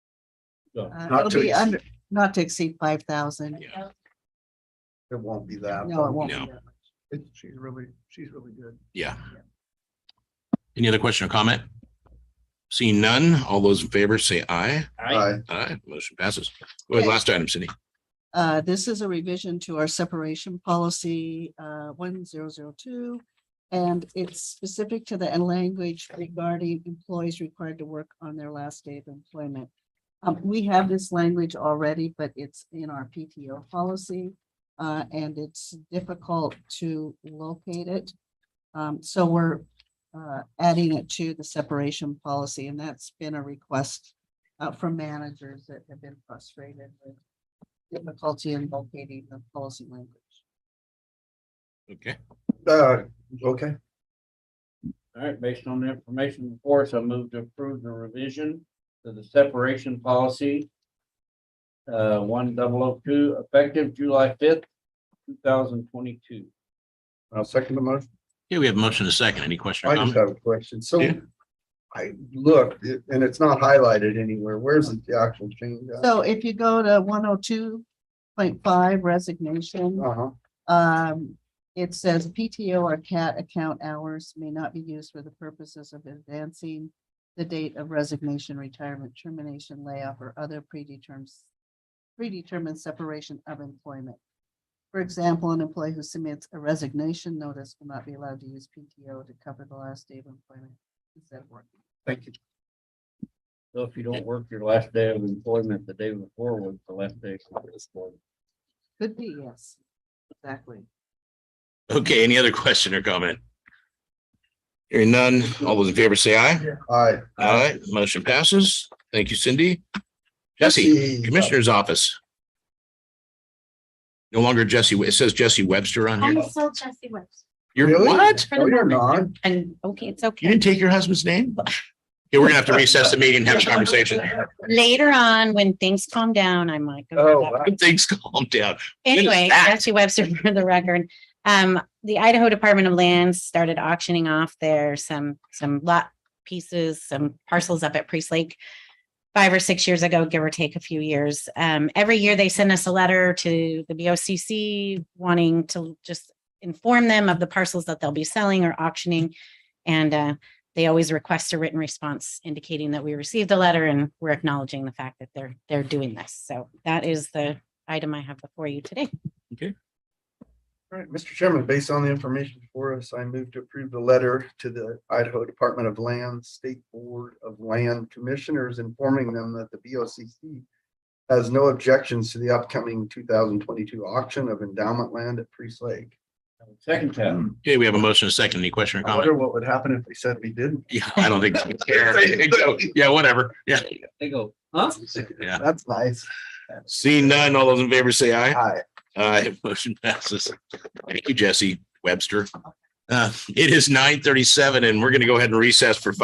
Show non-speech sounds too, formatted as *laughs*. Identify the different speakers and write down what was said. Speaker 1: No.
Speaker 2: Uh,
Speaker 3: Not
Speaker 2: It'll
Speaker 3: to
Speaker 2: be
Speaker 3: exceed.
Speaker 2: under, not to exceed five thousand.
Speaker 1: Yeah.
Speaker 3: It won't be that.
Speaker 2: No, it won't. be
Speaker 4: No.
Speaker 2: that much.
Speaker 3: It- She's really, she's really good.
Speaker 4: Yeah. Any other question or comment? Seeing none, all those in favor say aye.
Speaker 1: I,
Speaker 4: Aye, motion passes. What was the
Speaker 2: Okay.
Speaker 4: last item, Cindy?
Speaker 2: Uh, this is a revision to our separation policy, uh, one zero zero two. And it's specific to the language regarding employees required to work on their last day of employment. Um, we have this language already, but it's in our PTO policy. Uh, and it's difficult to locate it. Um, so we're, uh, adding it to the separation policy and that's been a request uh, from managers that have been frustrated with difficulty in locating the policy language.
Speaker 4: Okay,
Speaker 3: Uh, okay,
Speaker 1: all right, based on the information before us, I move to approve the revision to the separation policy. Uh, one double oh two, effective July fifth, two thousand twenty-two.
Speaker 3: I'll second the motion.
Speaker 4: here we have a motion and a second. Any question
Speaker 3: I
Speaker 4: or
Speaker 3: just
Speaker 4: comment?
Speaker 3: have a question. So
Speaker 4: Yeah.
Speaker 3: I looked it- and it's not highlighted anywhere. Where's the actual change? at?
Speaker 2: So if you go to one oh two point five resignation,
Speaker 3: Uh-huh.
Speaker 2: um, it says PTO or CAT account hours may not be used for the purposes of advancing the date of resignation, retirement, termination, layoff, or other predetermined predetermined separation of employment. For example, an employee who submits a resignation notice will not be allowed to use PTO to cover the last day of employment instead of working.
Speaker 3: Thank you.
Speaker 1: So if you don't work your last day of employment, the day before was the last day. of employment.
Speaker 2: Could be, yes. Exactly.
Speaker 4: Okay, any other *laughs* question or comment? Hearing none, all those in favor say aye.
Speaker 3: Aye.
Speaker 4: Aye, motion passes. Thank you, Cindy. Jesse, Commissioner's Office. No longer Jesse, it says Jesse Webster on
Speaker 5: I'm
Speaker 4: here.
Speaker 5: still Jesse West.
Speaker 4: You're
Speaker 3: Really?
Speaker 4: what?
Speaker 5: For
Speaker 3: No,
Speaker 5: the
Speaker 3: you're not.
Speaker 5: moment. And, okay, it's
Speaker 4: You
Speaker 5: okay.
Speaker 4: didn't take your husband's name? Yeah, we're gonna have to recess the meeting and have a conversation.
Speaker 5: Later on, when things calm down, I might go.
Speaker 3: Oh,
Speaker 5: over that.
Speaker 4: Things calm down.
Speaker 5: Anyway,
Speaker 4: that?
Speaker 5: Jesse Webster *laughs* for the record. Um, the Idaho Department of Lands started auctioning off their some, some lot pieces, some parcels up at Priest Lake five or six years ago, give or take a few years. Um, every year they send us a letter to the BOCC wanting to just inform them of the parcels that they'll be selling or auctioning. And, uh, they always request a written response indicating that we received the letter and we're acknowledging the fact that they're, they're doing this. So that is the item I have before you today.
Speaker 3: All right, Mr. Chairman, based on the information before us, I move to approve the letter to the Idaho Department of Land, State Board of Land Commissioners informing them that the BOCC has no objections to the upcoming two thousand twenty-two auction of endowment land at Priest Lake.
Speaker 1: Second time.
Speaker 4: Okay, we have a motion, and a second. Any question
Speaker 3: I
Speaker 4: or comment?
Speaker 3: wonder what would happen if they said we didn't.
Speaker 4: Yeah, *laughs* I don't think. Yeah, I think so. Yeah, whatever. Yeah.
Speaker 1: They go, huh?
Speaker 4: Yeah.
Speaker 3: That's nice.
Speaker 4: Seeing none, all those in favor say aye.
Speaker 3: Hi.
Speaker 4: Aye, *laughs* motion passes. Thank you, Jesse Webster. Uh, it is nine thirty-seven and we're gonna go ahead and recess for five.